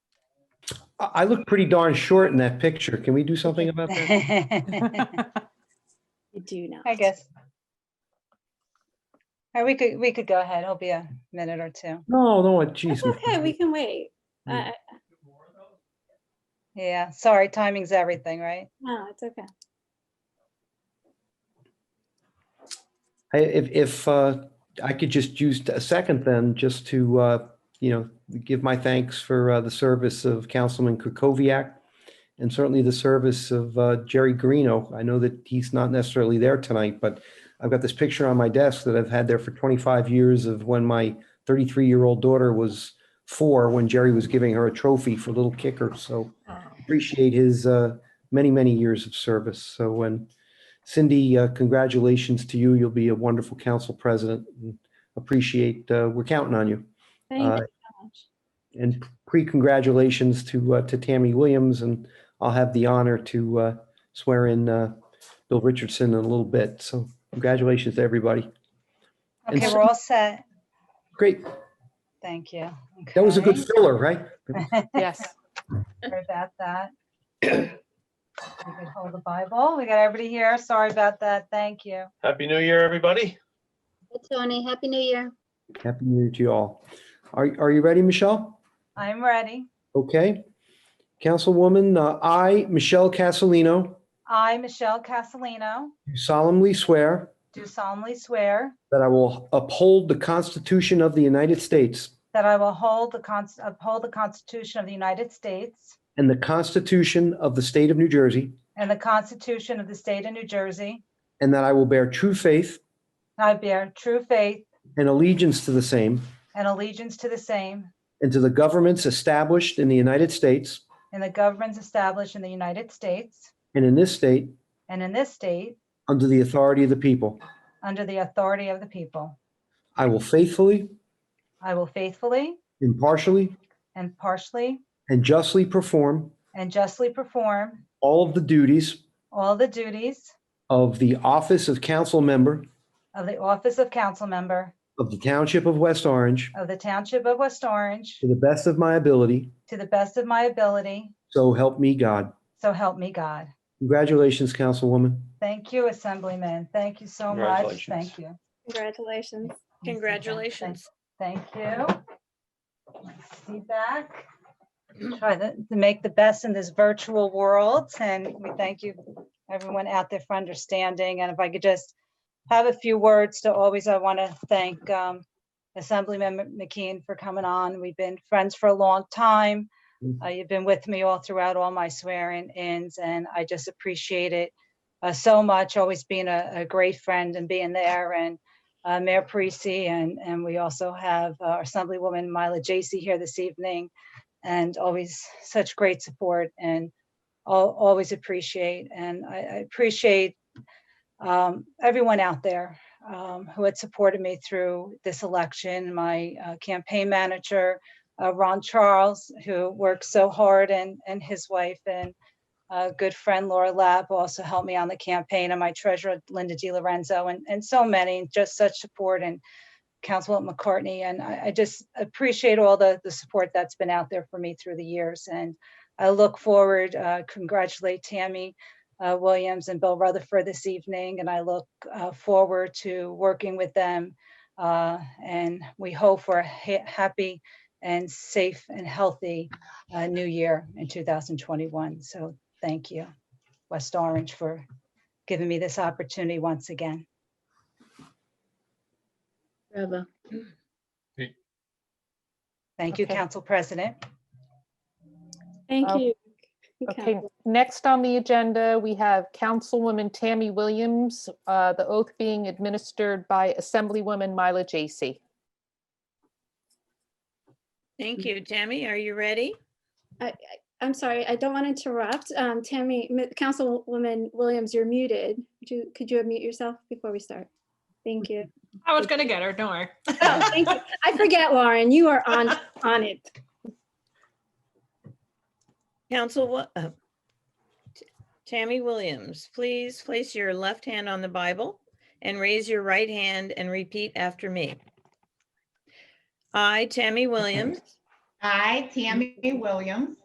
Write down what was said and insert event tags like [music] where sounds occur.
I, I look pretty darn short in that picture. Can we do something about [laughs] that? I You do not. guess. Or we could, we could go ahead. It'll be a minute or two. No, no, geez. It's okay, we can wait. I- Mm. I- Yeah, sorry, timing's everything, right? No, it's okay. I- If, if uh, I could just use a second then, just to, uh, you know, give my thanks for uh, the service of Councilman Kukoviac and certainly the service of uh, Jerry Greeno. I know that he's not necessarily there tonight, but I've got this picture on my desk that I've had there for 25 years of when my 33-year-old daughter was four, when Jerry was giving her a trophy for Little Kicker. So appreciate his uh, many, many years of service. So when Cindy, uh, congratulations to you. You'll be a wonderful council president. and Appreciate, uh, we're counting on you. Thank you Uh, so much. And pre-congratulations to, uh, to Tammy Williams, and I'll have the honor to uh, swear in uh, Bill Richardson in a little bit. So congratulations to everybody. And Okay, so- we're all set. Great. Thank you. That was a good Okay, filler, right? [laughs] Yes. sorry About that. We could Hold the Bible. We got everybody here. Sorry about that. Thank you. Happy New Year, everybody. Tony, Happy New Year. Happy New Year to you all. Are, are you ready, Michelle? I'm ready. Okay. Councilwoman, uh, I, Michelle Casalino, I, Michelle Casalino, do solemnly swear do solemnly swear that I will uphold the Constitution of the United States that I will hold the cons, uphold the Constitution of the United States And the Constitution of the State of New Jersey. and the Constitution of the State of New Jersey. And that I will bear true faith I bear true faith and allegiance to the same and allegiance to the same and to the governments established in the United States and the governments established in the United States and in this state and in this state under the authority of the people. under the authority of the people. I will faithfully, I will faithfully, impartially, impartially, and justly perform and justly perform all of the duties all the duties of the office of council member of the office of council member of the Township of West Orange of the Township of West Orange to the best of my ability. to the best of my ability, So help me God. so help me God. Congratulations, Councilwoman. Thank you, Assemblyman. Thank you so much. Congratulations. Thank you. Congratulations. Congratulations. Thank you. See back. Try to to make the best in this virtual world and we thank you, everyone out there for understanding. And if I could just have a few words to always, I want to thank um, Assemblyman Mc- McKeon for coming on. We've been friends for a long time. Mhm. Uh, You've been with me all throughout all my swearing ins and I just appreciate it uh, so much, always being a a great friend and being there and uh, Mayor Parisi, and, and we also have uh, our Assemblywoman Mila J.C. here this evening, and always such great support and al- always appreciate. And I I appreciate um, everyone out there um, who had supported me through this election, my uh, campaign manager, uh, Ron Charles, who worked so hard, and, and his wife, and a good friend Laura Lab who also helped me on the campaign and my treasurer Linda Di Lorenzo and, and so many, just such support and Councilwoman McCartney. And I, I just appreciate all the, the support that's been out there for me through the years. And I look forward, uh, congratulate Tammy uh, Williams and Bill Rutherford this evening. And I look uh, forward to working with them. Uh, and we hope for a ha- happy and safe and healthy uh, new year in 2021. So thank you, West Orange, for giving me this opportunity once again. Bravo. Thank you, Okay. Council President. Thank Oh. you. Okay, next on the agenda, we have Councilwoman Tammy Williams, uh, the oath being administered by Assemblywoman Mila J.C. Thank you, Tammy. Are you ready? I'm sorry, I don't want to interrupt. Um, Tammy, Mi- Councilwoman Williams, you're muted. Would you- Could you unmute yourself before we start? Thank you. I was gonna get her, don't worry. Oh, thank you. I forget, Lauren, you are on, on it. Council, Wo- uh, T- Tammy Williams, please place your left hand on the Bible and raise your right hand and repeat after me. I, Tammy Williams, I, Tammy Williams,